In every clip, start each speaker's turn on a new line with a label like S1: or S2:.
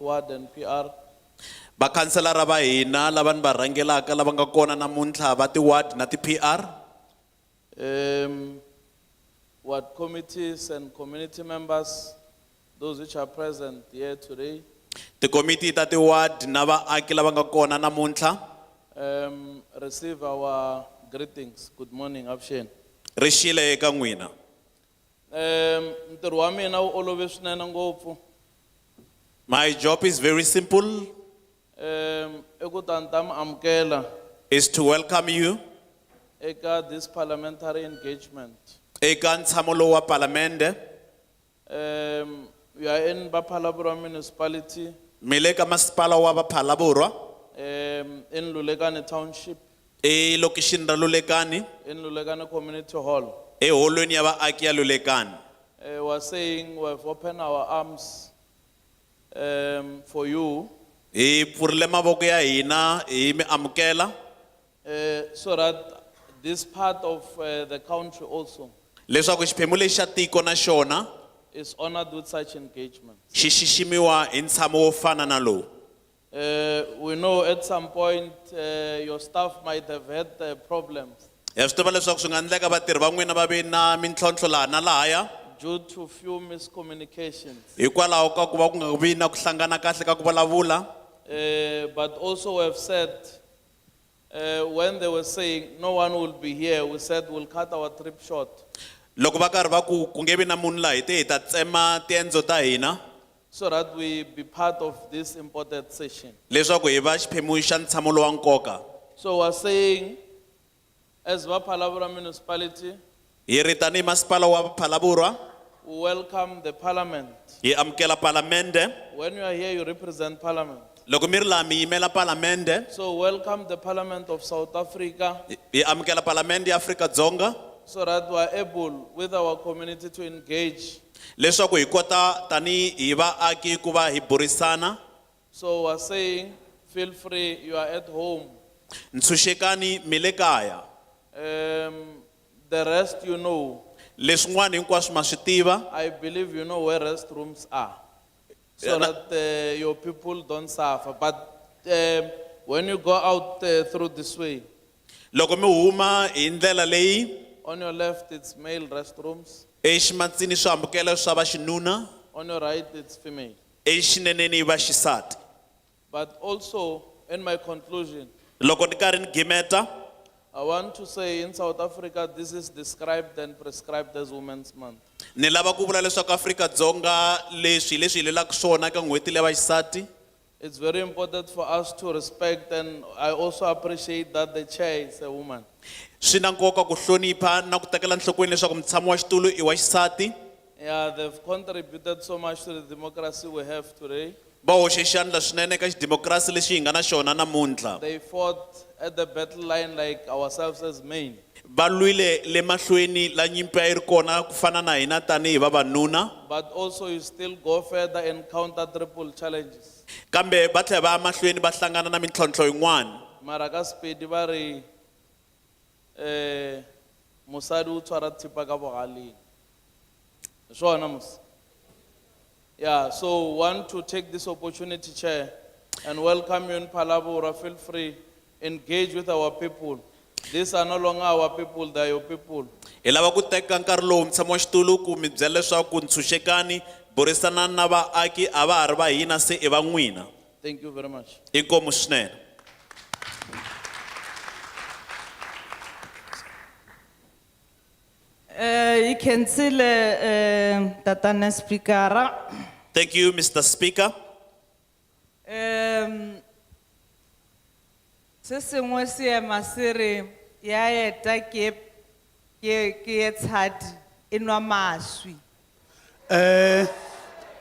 S1: ward and PR.
S2: vakhanselara va hina lava ni va rhangelaka lava nga kona namuntlha va ti-ward na ti-pr
S1: Um, ward committees and community members, those which are present here today.
S2: tikomiti ta ti-ward na vaaki lava nga kona namuntlha
S1: Um, receive our greetings. Good morning, Abshen.
S2: ri xile eka n'wina
S1: Um, ntirho wa mina wu olove swinene ngopfu.
S2: my job is very simple
S1: Um, i ku ta ni ta mi amukela
S2: is to welcome you
S1: eka this parliamentary engagement.
S2: eka ntshamo lowu wa palamende
S1: Um, we are in Bapalabra municipality,
S2: mi le ka masipala wa vaphalavurwa
S1: um, in Lulekane Township,
S2: elokixini ra lulekani
S1: in Lulekane Community Hall.
S2: eholweni ya vaaki ya lulekani
S1: Uh, we are saying we have opened our arms um, for you
S2: hi pfurile mavoko ya hina hi mi amukela
S1: uh, so that this part of uh, the country also
S2: leswaku xiphemu lexi xa tiko na xona
S1: is honored with such engagement.
S2: xi xiximiwa hi ntshamo wo fana na lowu
S1: Uh, we know at some point uh, your staff might have had uh, problems
S2: ha swi tiva leswaku swi nga endleka vatirhi va n'wina va ve na mintlhontlho laha na lahaya
S1: due to few miscommunications.
S2: hikwalaho ka ku va ku nga vi na ku hlangana kahle ka ku vulavula
S1: Uh, but also we have said, uh, when they were saying no one will be here, we said we'll cut our trip short.
S2: loko va karhi va ku ku nge vi na munhu laha hi te hi ta tsema tiendzo ta hina
S1: So that we be part of this important session.
S2: leswaku hi va xiphemu xa ntshamo lowa nkoka
S1: So we're saying, as Vapalavra municipality,
S2: hi ri tanihi masipala wa phalavurwa
S1: we welcome the parliament.
S2: hi amukela palamende
S1: When you are here, you represent parliament.
S2: loko mi ri laha mi yimela palamende
S1: So welcome the parliament of South Africa
S2: hi- hi amukela palamende ya afrika-dzonga
S1: so that we are able with our community to engage.
S2: leswaku hi kota tanihi hi vaaki ku va hi burisana
S1: So we're saying, feel free, you are at home.
S2: ntshunxekani mi le kaya
S1: Um, the rest you know.
S2: leswin'wana hinkwaswo ma swi tiva
S1: I believe you know where restrooms are, so
S2: Yeah,
S1: that uh, your people don't suffer. But um, when you go out uh, through this way,
S2: loko mi huma hi ndlela leyi e
S1: on your left it's male restrooms,
S2: eximatsini swihambukelo swa vaxinuna e
S1: on your right it's female.
S2: exineneni hi vaxisati
S1: But also, in my conclusion,
S2: loko ni karhi ni gimeta
S1: I want to say in South Africa this is described and prescribed as Women's Month.
S2: ni lava ku vula leswaku afrika-dzonga leswi hi leswi hi lelaka swona ka n'hweti leya vaxisati
S1: It's very important for us to respect, and I also appreciate that the chair is a woman.
S2: swi na nkoka ku hlonipha na ku tekela nhlokweni leswaku mutshami wa xitulu i wa xisati
S1: Yeah, they've contributed so much to the democracy we have today.
S2: va hoxe xandla swinene eka xidemokirasi lexi hi nga na xona namuntlha
S1: They fought at the battle line like ourselves as men.
S2: va lwile le mahlweni la nyimpi a yi ri kona ku fana na e hina tanihi vavanuna
S1: But also, you still go further and counter triple challenges.
S2: kambe va tlhela va ya mahlweni va hlangana na mintlhontlho yin'wana
S1: Marakas pedivari, eh, musadu twara tipa ka bogaleng. Sure, Namus. Yeah, so want to take this opportunity, Chair, and welcome you in Palabora. Feel free, engage with our people. These are no longer our people, they are your people.
S2: hi lava ku teka nkarhi lowu mutshami wa xitulu ku mi byela leswaku ntshunxekani burisanani na vaaki a va ha ri va hina se i va n'wina
S1: Thank you very much.
S2: inkomu swinene
S3: Eh, hi khensile um tatana spikara
S2: thank you mr speaker
S3: um se sengwe seema se re ya eta ke e- ke ke ye tshadi e nwa maswi
S4: Uh,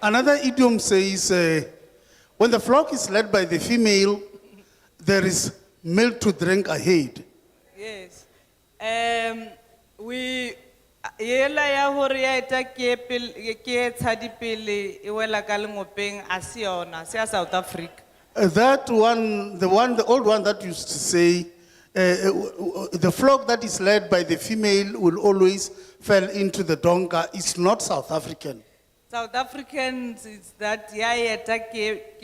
S4: another idiom says, uh, when the flock is led by the female, there is milk to drink ahead.
S3: yes um we yela ya gore ya eta ke e pel- ke ye tshadi pele e wela ka lengopeng a se yona se ya south africa
S4: Uh, that one, the one, the old one that used to say, uh, uh, w- w- the flock that is led by the female will always fall into the donga. It's not South African.
S3: south africans is that ya eta ke